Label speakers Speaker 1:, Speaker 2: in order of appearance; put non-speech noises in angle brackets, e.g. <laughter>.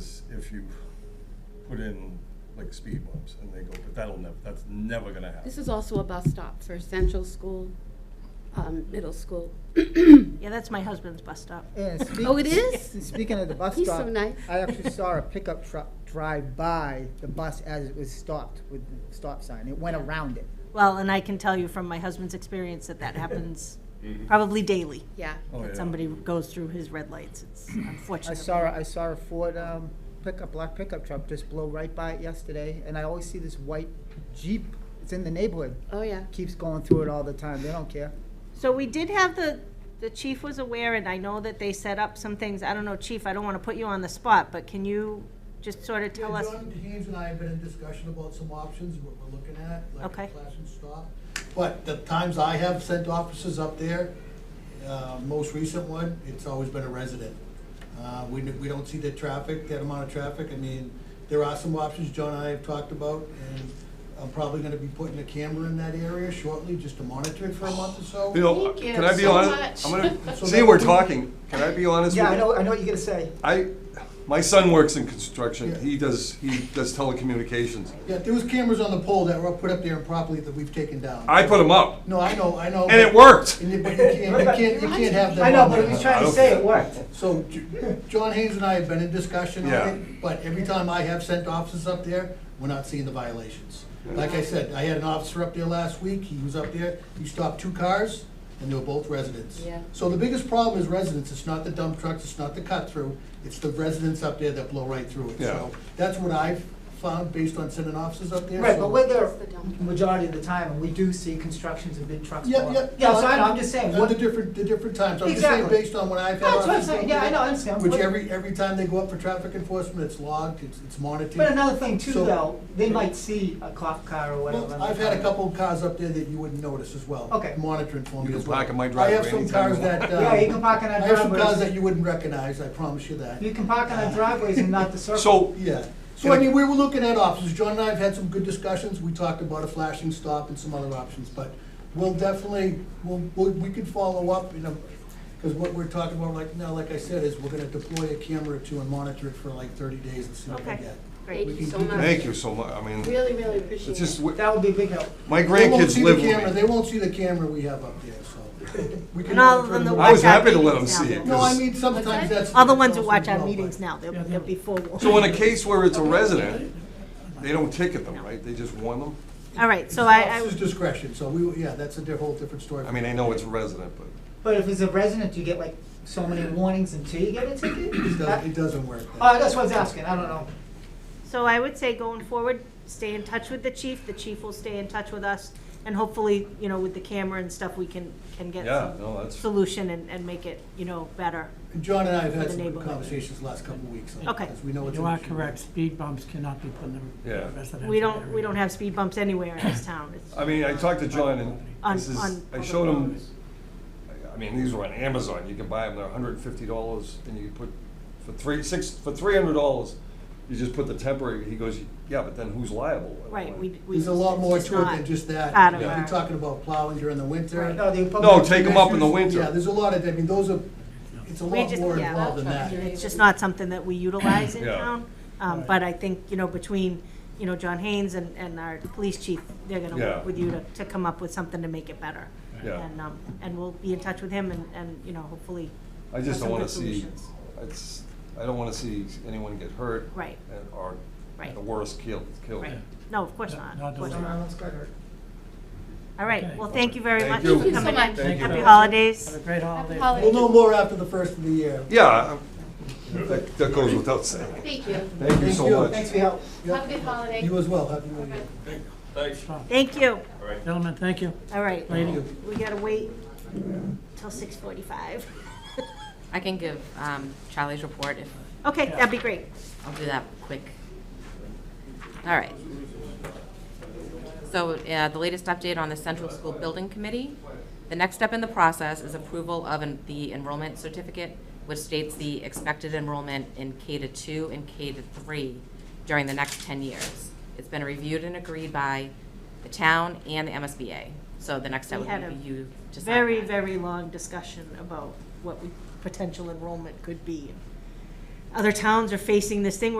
Speaker 1: if you put in like speed bumps and they go, but that'll never, that's never gonna happen.
Speaker 2: This is also a bus stop for Central School, um, Middle School.
Speaker 3: Yeah, that's my husband's bus stop. <laughs>
Speaker 2: <laughs>
Speaker 4: Yeah, speak-
Speaker 2: Oh, it is?
Speaker 4: <laughs> Speaking of the bus
Speaker 2: He's so
Speaker 4: stop,
Speaker 2: nice.
Speaker 4: I actually saw a pickup truck drive by the bus as it was stopped with the stop sign. It went around it.
Speaker 3: Well, and I can tell you from my husband's experience that that happens probably daily.
Speaker 2: Yeah.
Speaker 1: Mm-hmm. Oh, yeah.
Speaker 3: That somebody goes through his red lights. It's
Speaker 4: <clears throat> I
Speaker 3: unfortunate.
Speaker 4: saw, I saw a Ford um, pickup, black pickup truck just blow right by it yesterday, and I always see this white Jeep. It's in the neighborhood.
Speaker 2: Oh, yeah.
Speaker 4: Keeps going through it all the time. They don't care.
Speaker 3: So we did have the, the chief was aware, and I know that they set up some things. I don't know, chief, I don't want to put you on the spot, but can you just sort of tell
Speaker 5: Yeah,
Speaker 3: us?
Speaker 5: John Haynes and I have been in discussion about some options, what we're looking at, like
Speaker 3: Okay.
Speaker 5: a class and stop. But the times I have sent officers up there, uh, most recent one, it's always been a resident. Uh, We, we don't see the traffic, that amount of traffic. I mean, there are some options John and I have talked about, and I'm probably gonna be putting a camera in that area shortly, just to monitor it for a month or so.
Speaker 1: You know,
Speaker 2: Thank you
Speaker 1: can I be
Speaker 2: so
Speaker 1: honest? I'm
Speaker 2: much.
Speaker 1: gonna,
Speaker 5: So
Speaker 1: see,
Speaker 5: that
Speaker 1: we're
Speaker 5: would be-
Speaker 1: talking, can I be honest with you?
Speaker 4: Yeah, I know, I know what you're gonna say.
Speaker 1: I, my son works in construction,
Speaker 5: Yeah.
Speaker 1: he does, he does telecommunications.
Speaker 5: Yeah, there was cameras on the pole that were put up there improperly that we've taken down.
Speaker 1: I put him up,
Speaker 5: No, I know, I know.
Speaker 1: and it worked.
Speaker 5: And you- But you can't, you can't, you can't have them.
Speaker 4: I know,
Speaker 5: on
Speaker 4: but
Speaker 5: there.
Speaker 4: he was trying
Speaker 1: I
Speaker 4: to
Speaker 1: don't-
Speaker 4: say it worked.
Speaker 5: So, J- John Haynes and I have been in discussion on
Speaker 1: Yeah.
Speaker 5: it, but every time I have sent officers up there, we're not seeing the violations. Like I said, I had an officer up there last week, he was up there, he stopped two cars, and they were both residents.
Speaker 2: Yeah.
Speaker 5: So the biggest problem is residents, it's not the dump trucks, it's not the cut-through, it's the residents up there that blow right through it.
Speaker 1: Yeah.
Speaker 5: So That's what I've found based on sending officers up there.
Speaker 4: Right,
Speaker 5: so-
Speaker 4: but we're there
Speaker 2: It's the dump.
Speaker 4: majority of the time, and we do see constructions and big trucks.
Speaker 5: Yeah,
Speaker 4: go
Speaker 5: yeah.
Speaker 4: up. Yeah, so I know, I'm just saying,
Speaker 5: Uh,
Speaker 4: what-
Speaker 5: The different, the different times, I'm just saying
Speaker 4: Exactly.
Speaker 5: based on what I've had.
Speaker 4: That's what I'm
Speaker 5: officers
Speaker 4: saying.
Speaker 5: go
Speaker 4: Yeah, I
Speaker 5: through,
Speaker 4: know, I understand.
Speaker 5: Which
Speaker 4: But-
Speaker 5: every, every time they go up for traffic enforcement, it's logged, it's, it's monitored.
Speaker 4: but another thing too,
Speaker 5: So-
Speaker 4: though, they might see a cop car or whatever.
Speaker 5: Well, I've had a couple of cars up there that you wouldn't notice as well.
Speaker 4: Okay.
Speaker 5: Monitoring for
Speaker 1: You
Speaker 5: me
Speaker 1: can
Speaker 5: as well.
Speaker 1: park in my
Speaker 5: I have
Speaker 1: driveway
Speaker 5: some
Speaker 1: anytime
Speaker 5: cars
Speaker 1: you want.
Speaker 5: that, uh.
Speaker 4: Yeah, you can park in our
Speaker 5: I have some cars
Speaker 4: driveways.
Speaker 5: that you wouldn't recognize, I promise you that.
Speaker 4: You can park on our driveways and
Speaker 5: <laughs>
Speaker 4: not the circle.
Speaker 1: So,
Speaker 5: Yeah. So I mean, we were looking at options. John and I have had some good discussions. We talked about a flashing stop and some other options, but we'll definitely, we'll, we'll- we can follow up, you know, because what we're talking about like now, like I said, is we're gonna deploy a camera or two and monitor it for like thirty days and see what we
Speaker 3: Okay.
Speaker 5: get.
Speaker 3: Great.
Speaker 2: Thank you so
Speaker 5: We can-
Speaker 2: much.
Speaker 1: thank you so much, I mean,
Speaker 2: Really, really appreciate it.
Speaker 1: it's just,
Speaker 4: That would be a big help.
Speaker 1: my
Speaker 5: They won't
Speaker 1: grandkids
Speaker 5: see the
Speaker 1: live
Speaker 5: camera,
Speaker 1: with me.
Speaker 5: they won't see the camera we have up there, so.
Speaker 3: <laughs>
Speaker 5: we can
Speaker 3: And all of them
Speaker 5: monitor
Speaker 3: that
Speaker 5: it.
Speaker 1: I
Speaker 3: watch
Speaker 1: was
Speaker 3: our
Speaker 1: happy to let
Speaker 3: meetings
Speaker 1: them see
Speaker 3: now,
Speaker 1: it.
Speaker 3: they'll-
Speaker 5: No, I mean, sometimes that's.
Speaker 3: All the ones who watch our
Speaker 5: Well, but-
Speaker 3: meetings now, they'll, they'll be forewarned.
Speaker 1: So in a case where it's a resident, they don't ticket them, right? They just warn them?
Speaker 3: All right, so I, I.
Speaker 5: It's discretion, so we, yeah, that's a di- whole different story.
Speaker 1: I mean, I know it's a resident, but.
Speaker 4: But if it's a resident, you get like so many warnings until you get a ticket?
Speaker 5: It does- it doesn't work. that
Speaker 4: Uh, that's what I was asking, I don't know.
Speaker 3: So I would say going forward, stay in touch with the chief, the chief will stay in touch with us, and hopefully, you know, with the camera and stuff, we can, can get
Speaker 1: Yeah,
Speaker 3: some
Speaker 1: no, that's-
Speaker 3: solution and, and make it, you know, better.
Speaker 5: And John and I have
Speaker 3: For
Speaker 5: had
Speaker 3: the
Speaker 5: some good
Speaker 3: neighborhood.
Speaker 5: conversations the last couple of weeks. on it,
Speaker 3: Okay.
Speaker 5: Because we know it's.
Speaker 6: You
Speaker 5: an
Speaker 6: are
Speaker 5: issue.
Speaker 6: correct, speed bumps cannot be put in the
Speaker 1: Yeah.
Speaker 6: residential area.
Speaker 3: We don't, we don't have speed bumps anywhere in this town. It's-
Speaker 1: I mean, I talked to John and
Speaker 3: On-
Speaker 1: this is,
Speaker 3: on
Speaker 1: I
Speaker 3: public
Speaker 1: showed him,
Speaker 3: roads.
Speaker 1: I- I mean, these were on Amazon, you can buy them, they're hundred and fifty dollars, and you put, for three, six, for three hundred dollars, you just put the temporary, he goes, yeah, but then who's liable?
Speaker 3: Right, we, we.
Speaker 5: There's a lot
Speaker 3: it's
Speaker 5: more
Speaker 3: just
Speaker 5: to it
Speaker 3: not
Speaker 5: than just that.
Speaker 3: out of
Speaker 5: You know,
Speaker 3: our-
Speaker 5: You're talking about plowing during the winter.
Speaker 4: No, the public-
Speaker 1: No, Oh, take 'em up in the winter.
Speaker 5: Yeah, there's a lot of, I mean, those are, it's a
Speaker 3: We
Speaker 5: lot
Speaker 3: just-
Speaker 5: more
Speaker 3: yeah.
Speaker 5: involved than that.
Speaker 3: It's just not something that we utilize in
Speaker 1: Yeah.
Speaker 3: town. Um, but I think, you know, between, you know, John Haynes and, and our police chief, they're gonna
Speaker 1: Yeah.
Speaker 3: work with you to, to come up with something to make it better.
Speaker 1: Yeah.
Speaker 3: And, um, and we'll be in touch with him and, and, you know, hopefully.
Speaker 1: I just
Speaker 3: have
Speaker 1: don't
Speaker 3: some
Speaker 1: wanna
Speaker 3: good
Speaker 1: see,
Speaker 3: solutions.
Speaker 1: it's, I don't wanna see anyone get hurt.
Speaker 3: Right.
Speaker 1: and- Or,
Speaker 3: Right.
Speaker 1: the worst, killed, killed.
Speaker 3: Right, no, of course not,
Speaker 6: Not
Speaker 3: of course
Speaker 6: doing
Speaker 3: not.
Speaker 4: Someone else got hurt.
Speaker 3: All right,
Speaker 6: Okay.
Speaker 3: well, thank you very
Speaker 1: Thank
Speaker 3: much
Speaker 1: you.
Speaker 3: for
Speaker 1: Thank you so
Speaker 3: coming in.
Speaker 2: much.
Speaker 1: Thank you.
Speaker 3: Happy holidays.
Speaker 6: Have a great holiday.
Speaker 2: holiday.
Speaker 5: We'll know more after the first of the year.
Speaker 1: Yeah, I- that, that goes without saying.
Speaker 2: Thank you.
Speaker 1: Thank you
Speaker 5: Thank
Speaker 1: so
Speaker 5: you.
Speaker 1: much.
Speaker 4: Thanks for your help.
Speaker 2: Have a good holiday.
Speaker 5: You as well, happy new year.
Speaker 3: Thank you,
Speaker 6: Gentlemen, thank you.
Speaker 3: all right,
Speaker 6: Thank you.
Speaker 3: we gotta wait till six forty-five. <laughs>
Speaker 7: I can give um, Charlie's report if,
Speaker 3: Okay, that'd be great.
Speaker 7: I'll do that quick. All right. So uh, the latest update on the Central School Building Committee. The next step in the process is approval of an- the enrollment certificate, which states the expected enrollment in K to two and K to three during the next 10 years. It's been reviewed and agreed by the town and the MSBA. So the next step
Speaker 3: We had
Speaker 7: would
Speaker 3: a
Speaker 7: be you to sign
Speaker 3: very,
Speaker 7: that.
Speaker 3: very long discussion about what we, potential enrollment could be. Other towns are facing this thing